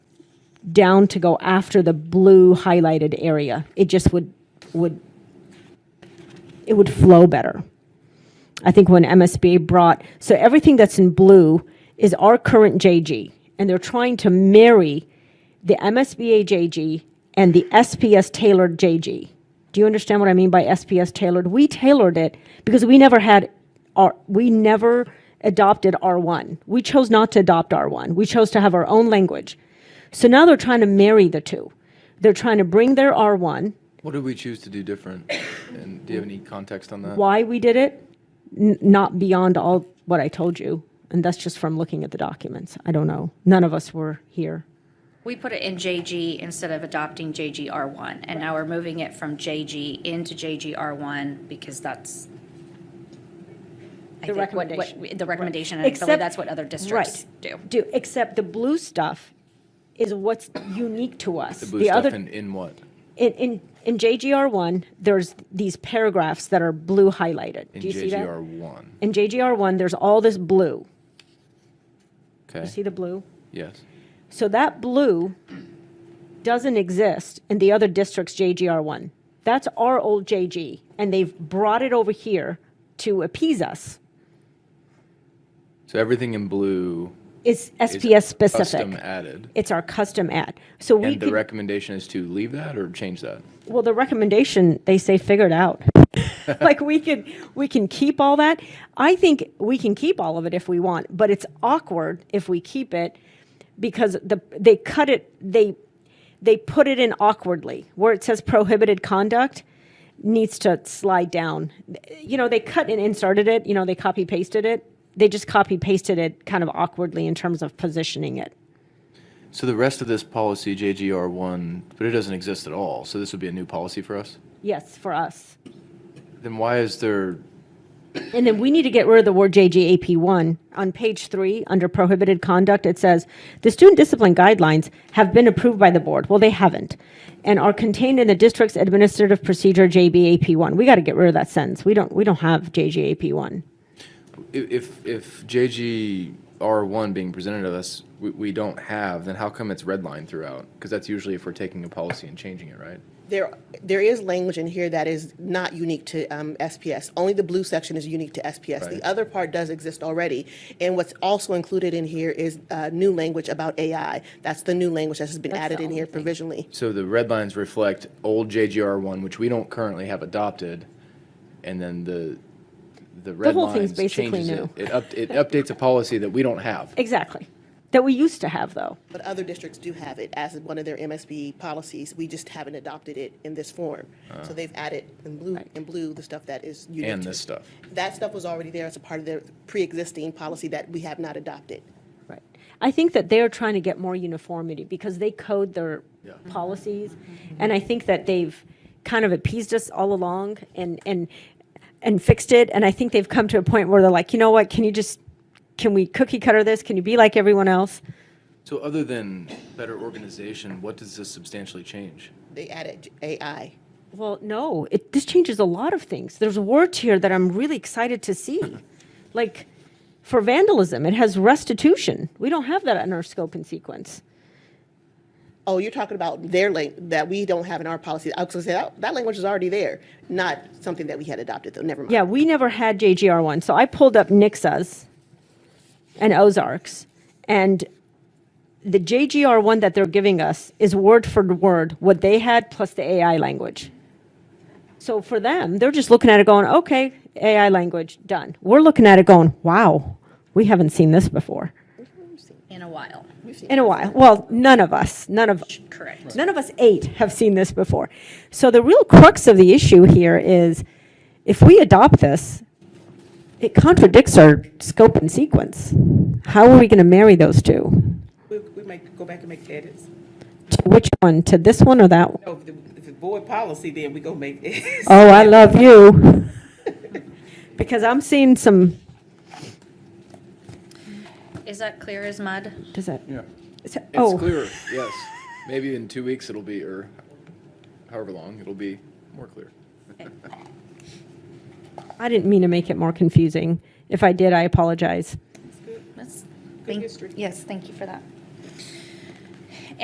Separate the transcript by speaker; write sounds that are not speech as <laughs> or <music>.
Speaker 1: down to go after the blue highlighted area. It just would, would, it would flow better. I think when MSBA brought, so everything that's in blue is our current JG, and they're trying to marry the MSBA JG and the SPS tailored JG. Do you understand what I mean by SPS tailored? We tailored it because we never had our, we never adopted R1. We chose not to adopt R1. We chose to have our own language. So now they're trying to marry the two. They're trying to bring their R1
Speaker 2: What did we choose to do different? And do you have any context on that?
Speaker 1: why we did it, n- not beyond all what I told you. And that's just from looking at the documents. I don't know. None of us were here.
Speaker 3: We put it in JG instead of adopting JGR1, and now we're moving it from JG into JGR1 because that's. I
Speaker 1: The
Speaker 3: think what- what-
Speaker 1: recommendation.
Speaker 3: The recommendation, and I
Speaker 1: Except-
Speaker 3: believe that's what other districts do.
Speaker 1: Do, except the blue stuff is what's unique to us.
Speaker 2: The blue stuff
Speaker 1: other-
Speaker 2: in, in what?
Speaker 1: In, in, in JGR one, there's these paragraphs that are blue highlighted.
Speaker 2: In
Speaker 1: Do you see that?
Speaker 2: JGR one,
Speaker 1: In JGR one, there's all this blue. You see
Speaker 2: okay?
Speaker 1: the blue?
Speaker 2: Yes.
Speaker 1: So that blue doesn't exist in the other district's JGR1. That's our old JG, and they've brought it over here to appease us.
Speaker 2: So everything in blue
Speaker 1: It's
Speaker 2: is
Speaker 1: SPS
Speaker 2: Custom
Speaker 1: specific.
Speaker 2: added.
Speaker 1: It's our custom ad. So we,
Speaker 2: And the
Speaker 1: could-
Speaker 2: recommendation is to leave that or change that?
Speaker 1: well, the recommendation, they say figure it out. Like, we can, we can keep all that. I think we can keep all of it if we want, but it's awkward if we keep it because the, they cut it, they, they put it in awkwardly where it says prohibited conduct needs to slide down you know they cut and inserted it you know they copy pasted it they just copy pasted it kind of awkwardly in terms of positioning it
Speaker 2: So the rest of this policy, JGR one, but it doesn't exist at all, so this would be a new policy for us?
Speaker 1: yes for us
Speaker 2: Then why is there,
Speaker 1: and then we need to get rid of the word jgap1 on page 3 under prohibited conduct it says the student discipline guidelines have been approved by the board well they haven't and are contained in the district's administrative procedure jbap1 we got to get rid of that sentence we don't we don't have jgap1
Speaker 2: i- if, if JGR one being presented to us, we, we don't have, then how come it's redlined throughout? Because that's usually if we're taking a policy and changing it, right?
Speaker 4: There, there is language in here that is not unique to um, SPS. Only the blue section is unique to SPS.
Speaker 2: Right.
Speaker 4: The other part does exist already. And what's also included in here is uh, new language about AI. That's the new language that has been added
Speaker 1: the
Speaker 4: in here provisionally.
Speaker 2: So the red lines reflect old JGR one, which we don't currently have adopted, and then the, the red
Speaker 1: whole thing's
Speaker 2: lines
Speaker 1: basically
Speaker 2: changes it. It up, it updates a policy that we don't have.
Speaker 1: exactly that we used to have though
Speaker 4: But other districts do have it as one of their MSB policies. We just haven't adopted it in this form. So they've added in blue, in blue, the stuff that is unique.
Speaker 2: Uh. And
Speaker 4: to
Speaker 2: this
Speaker 4: it.
Speaker 2: stuff.
Speaker 4: That stuff was already there as a part of their pre-existing policy that we have not adopted.
Speaker 1: Right. I think that they're trying to get more uniformity because they code their policies. And I think that they've kind of appeased us all along and, and, and fixed it. And I think they've come to a point where they're like, you know what, can you just, can we cookie cutter this? Can you be like everyone else?
Speaker 2: So other than better organization, what does this substantially change?
Speaker 4: They added AI.
Speaker 1: Well, no, it, this changes a lot of things. There's words here that I'm really excited to see. like for vandalism, it has restitution. We don't have that in our scope and sequence.
Speaker 4: Oh, you're talking about their link that we don't have in our policy. I was gonna say that, that language is already there, not something that we had adopted though. Never mind.
Speaker 1: Yeah, we never had JGR one, so I pulled up Nixas and Ozarks, and the JGR one that they're giving us is word for word what they had plus the AI language. So for them, they're just looking at it going, okay, AI language, done. We're looking at it going, wow, we haven't seen this before
Speaker 3: In a while,
Speaker 1: in a while. Well, none of us, none of
Speaker 3: correct.
Speaker 1: None of us eight have seen this before. So the real crux of the issue here is if we adopt this, it contradicts our scope and sequence. How are we going to marry those two?
Speaker 5: We, we might go back and make edits.
Speaker 1: To which one? To this one or that one?
Speaker 5: No, if the, if the board policy, then we go make edits.
Speaker 1: Oh, I love you. <laughs> Because I'm seeing some,
Speaker 3: Is that clear as mud?
Speaker 1: does that?
Speaker 2: Yeah.
Speaker 1: so-
Speaker 2: It's
Speaker 1: Oh,
Speaker 2: clearer, yes. Maybe in two weeks it'll be, or however long, it'll be more clear.
Speaker 1: I didn't mean to make it more confusing. If I did, I apologize.
Speaker 3: That's-
Speaker 5: Good
Speaker 3: thank-
Speaker 5: history.
Speaker 3: Yes, thank you for that.